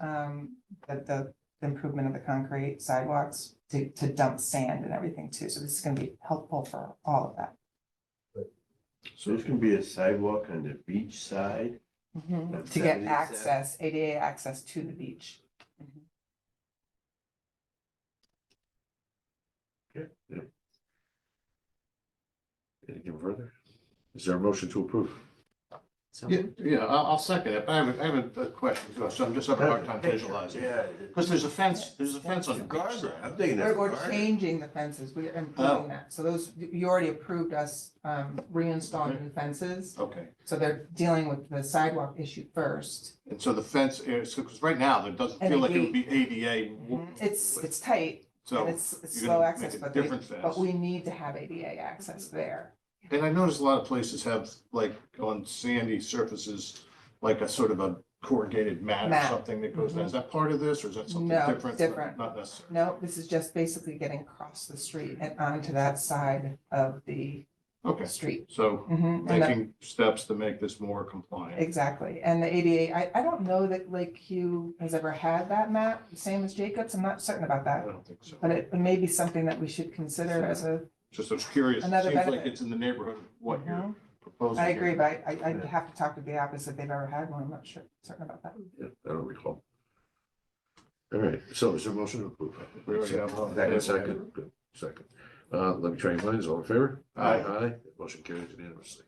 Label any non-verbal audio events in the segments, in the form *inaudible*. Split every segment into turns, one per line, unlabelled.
um, the, the improvement of the concrete sidewalks to, to dump sand and everything too. So this is gonna be helpful for all of that.
So it's gonna be a sidewalk on the beach side? That's
To get
77.
access, ADA access to the beach.
Anything further? Is there a motion to approve?
Yeah, yeah, I'll, I'll second it, but I have, a- I have a question, too, so I'm just having a hard time visualizing.
Yeah.
Because there's a fence, there's a fence on the beach
Garden,
side.
I'm thinking
Or,
that's
or
garden.
changing the fences, we are
Oh.
improving that. So those, you already approved us, um, reinstalling the fences.
Okay,
So they're dealing with the sidewalk issue first.
and so the fence is, because right now, it doesn't
And
feel
a
like it would be ADA.
Mm-hmm. It's, it's tight
So,
and it's, it's
you're
slow
gonna
access,
make a
but they,
different fence.
but we need to have ADA access there.
and I noticed a lot of places have, like, on sandy surfaces, like a sort of a corrugated mat or
Mat. Mm-hmm.
something that goes down. Is that part of this, or is that something
No,
different?
different.
Not necessarily.
No, this is just basically getting across the street and onto that side of the
Okay,
street.
so
Mhm, and that-
making steps to make this more compliant.
Exactly, and the ADA, I, I don't know that Lake Hugh has ever had that map, same as Jacobs, I'm not certain about
I
that.
don't think so.
But it may be something that we should consider as a,
Just I was curious, it
Another
seems like
benefit.
it's in the neighborhood of what you're
Mhm.
proposing.
I agree,
here.
but I, I- I'd have to talk to the office if they've ever had one, I'm not sure, certain about that.
Yeah, I don't recall. All right, so is there a motion to approve?
We already have one.
Second, second, good, second. Uh, let me try your minds, all in favor?
Aye.
Aye, motion carries unanimously.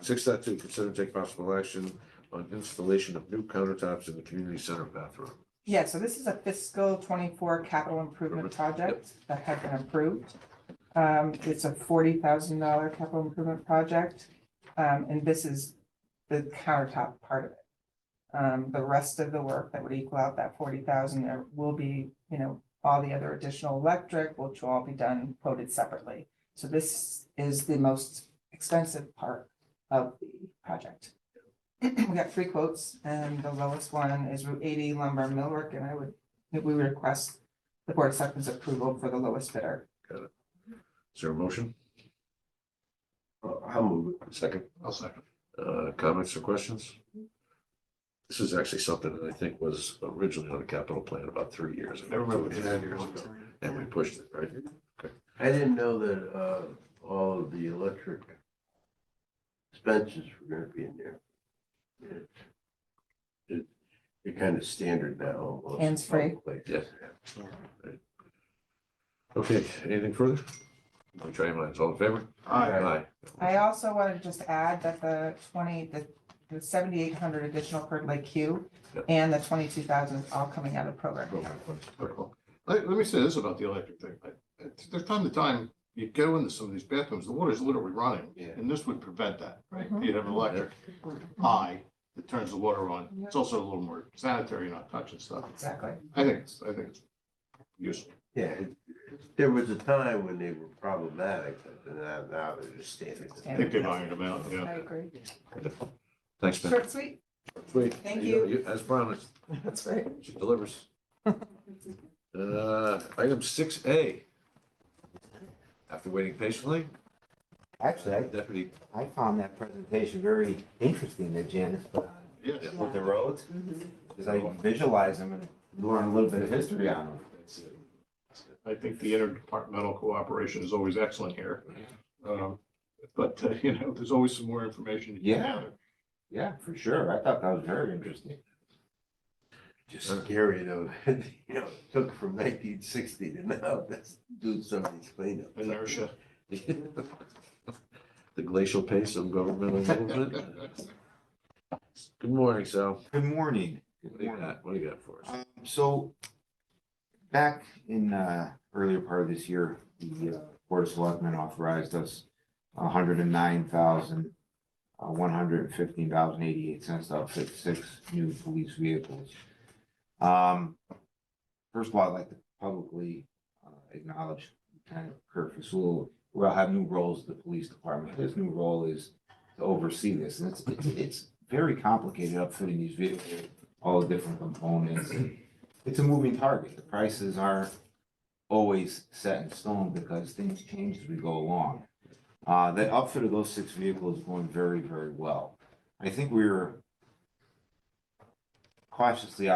Six dot two, consider and take possible action on installation of new countertops in the community center bathroom.
Yeah, so this is a fiscal twenty-four capital improvement project that had been approved. Um, it's a forty thousand dollar capital improvement project, um, and this is the countertop part of it. Um, the rest of the work that would equal out that forty thousand, there will be, you know, all the other additional electric, which will all be done quoted separately. So this is the most expensive part of the project we got three quotes, and the lowest one is Route eighty lumber and millwork, and I would, we would request the board acceptance approval for the lowest bidder.
Is there a motion? I'll move it. Second,
I'll second.
uh, comments or questions? This is actually something that I think was originally on the capital plan about three years. ago.
I remember
two and a half years ago, And we pushed it, right?
I didn't know that, uh, all of the electric expenses were gonna be in there. It's- it- It's kind of standard now. almost in some
Hands-free.
places.
Okay, anything further? Let me try your minds, all in favor?
Aye.
I also wanted to just add that the twenty, the, the seventy-eight hundred additional per Lake Q
Yep.
and the twenty-two thousand all coming out of program.
Let, let me say this about the electric thing. I- I- There's time to time, you go into some of these bathrooms, the water's literally running.
Yeah.
And this would prevent that, right?
Mhm.
You'd have an electric
Mm-hmm.
high that turns the water on. It's also a little more sanitary, not touching stuff.
Exactly.
I think, it's- I think it's useful.
Yeah, it- there was a time when they were problematic, but now, now they're just standard.
I
Standard.
think they've ironed them out,
I
yeah.
agree.
Thanks, man.
Short, and sweet.
Sweet.
Thank
As promised,
That's right.
she delivers. Uh, item six A. After waiting patiently,
Actually, I,
Deputy, *laughs*
I found that presentation very interesting that Janice put on
Yes.
with the roads. Because I visualized them and learned a little bit of history on them.
I think the interdepartmental cooperation is always excellent here. Um, But, uh, you know, there's always some more information. to
Yeah.
gather.
Yeah, for sure. I thought that was very interesting.
Just scary though, *laughs* you know, it took from nineteen sixty to now, that's doing some of these cleanups.
Inertia.
the glacial pace of government a little bit.
*laughs*
Good morning, Sal.
Good morning.
What do you got? What do you got for us?
Um, So back in uh earlier part of this year, the uh, Board of Selectmen authorized us hundred and nine thousand uh, one hundred and fifteen dollars and eighty-eight cents to outfit six new police vehicles. Um, first of all, I'd like to publicly uh, acknowledge Lieutenant Kurt Fasul. We'll have new roles at the police department. His new role is to oversee this, and it's, it's, it's very complicated outfitting these vehicles all the different components. and It's a moving target. The prices aren't always set in stone because things change as we go along. Uh, the outfit of those six vehicles is going very, very well. I think we were cautiously